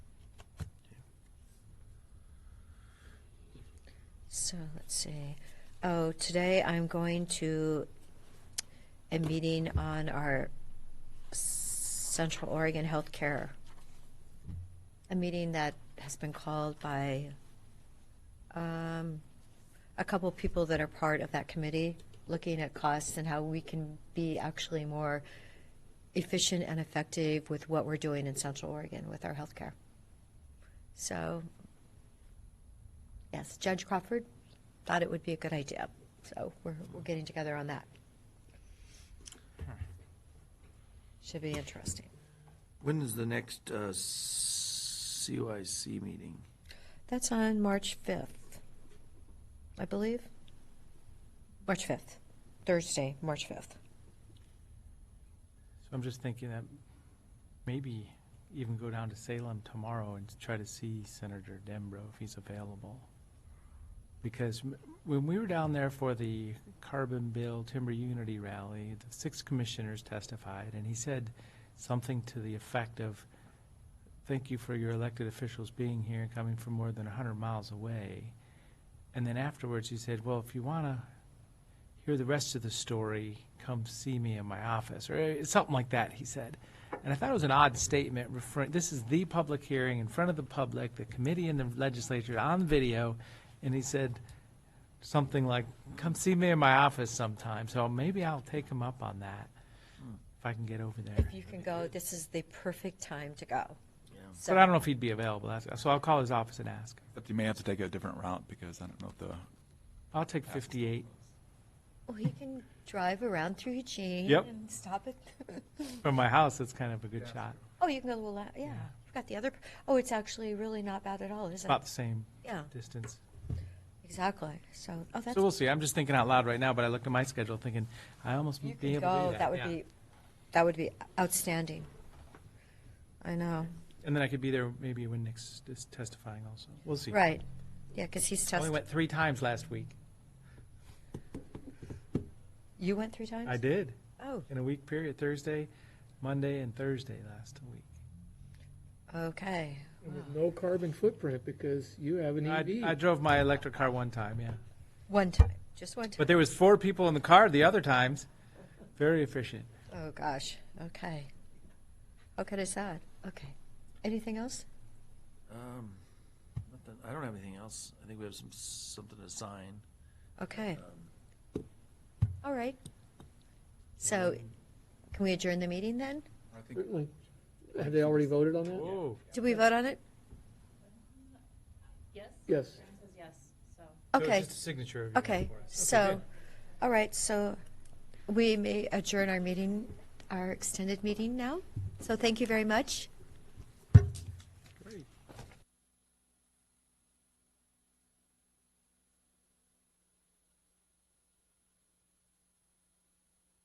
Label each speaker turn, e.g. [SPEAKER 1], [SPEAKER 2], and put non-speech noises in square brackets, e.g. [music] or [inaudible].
[SPEAKER 1] So let's see. Oh, today I'm going to a meeting on our Central Oregon Healthcare. A meeting that has been called by um, a couple of people that are part of that committee, looking at costs and how we can be actually more efficient and effective with what we're doing in Central Oregon with our healthcare. So, yes, Judge Crawford thought it would be a good idea. So we're, we're getting together on that. Should be interesting.
[SPEAKER 2] When is the next uh, CYC meeting?
[SPEAKER 1] That's on March 5th, I believe. March 5th, Thursday, March 5th.
[SPEAKER 3] So I'm just thinking that maybe even go down to Salem tomorrow and try to see Senator Dembro if he's available. Because m- when we were down there for the Carbon Bill Timber Unity Rally, the six commissioners testified, and he said something to the effect of, thank you for your elected officials being here, and coming from more than hundred miles away. And then afterwards, he said, well, if you want to hear the rest of the story, come see me in my office, or eh, something like that, he said. And I thought it was an odd statement referring, this is the public hearing in front of the public, the committee and the legislature on video, and he said something like, come see me in my office sometime, so maybe I'll take him up on that, if I can get over there.
[SPEAKER 1] If you can go, this is the perfect time to go.
[SPEAKER 3] But I don't know if he'd be available, that's- so I'll call his office and ask.
[SPEAKER 4] But you may have to take a different route because I don't know if the.
[SPEAKER 3] I'll take fifty-eight
[SPEAKER 1] Well, he oh, can drive around through Eugene
[SPEAKER 4] Yep.
[SPEAKER 1] and stop at, [laughs]
[SPEAKER 3] from my house, that's kind of a good shot,
[SPEAKER 1] oh, you can go to the, la- yeah. I've got the other, oh, it's actually really not bad at all, is it?
[SPEAKER 3] about the same
[SPEAKER 1] Yeah,
[SPEAKER 3] distance.
[SPEAKER 1] exactly. So, oh, that's,
[SPEAKER 3] So we'll see. I'm just thinking out loud right now, but I looked at my schedule thinking, I almost
[SPEAKER 1] you
[SPEAKER 3] be
[SPEAKER 1] could
[SPEAKER 3] able to
[SPEAKER 1] go,
[SPEAKER 3] do that.
[SPEAKER 1] that would
[SPEAKER 3] yeah.
[SPEAKER 1] be, that would be outstanding. I know,
[SPEAKER 3] And then I could be there maybe when Nick's is testifying also. We'll see.
[SPEAKER 1] right. Yeah, because he's
[SPEAKER 3] Oh, I only
[SPEAKER 1] tested,
[SPEAKER 3] went three times last week.
[SPEAKER 1] you went three times?
[SPEAKER 3] I did,
[SPEAKER 1] Oh,
[SPEAKER 3] in a week period, Thursday, Monday, and Thursday last week.
[SPEAKER 1] okay.
[SPEAKER 5] And With no carbon footprint because you have an E
[SPEAKER 3] I, I
[SPEAKER 5] EV.
[SPEAKER 3] drove my electric car one time, yeah.
[SPEAKER 1] One time, just one time.
[SPEAKER 3] But there was four people in the car the other times. Very efficient.
[SPEAKER 1] Oh, gosh, okay. Okay, that's sad. Okay. Anything else?
[SPEAKER 2] Um, nothing- I don't have anything else. I think we have some, something to sign. Um,
[SPEAKER 1] Okay. All right. So can we adjourn the meeting then?
[SPEAKER 4] I think
[SPEAKER 5] Certainly. Have they already voted on that?
[SPEAKER 3] Whoa.
[SPEAKER 1] Did we vote on it?
[SPEAKER 6] Yes?
[SPEAKER 5] Yes.
[SPEAKER 6] Karen says yes,
[SPEAKER 3] So
[SPEAKER 6] so.
[SPEAKER 3] it's
[SPEAKER 1] Okay,
[SPEAKER 3] just a signature of yours
[SPEAKER 1] okay.
[SPEAKER 3] for us.
[SPEAKER 1] So,
[SPEAKER 3] good.
[SPEAKER 1] all right, so we may adjourn our meeting, our extended meeting now. So thank you very much.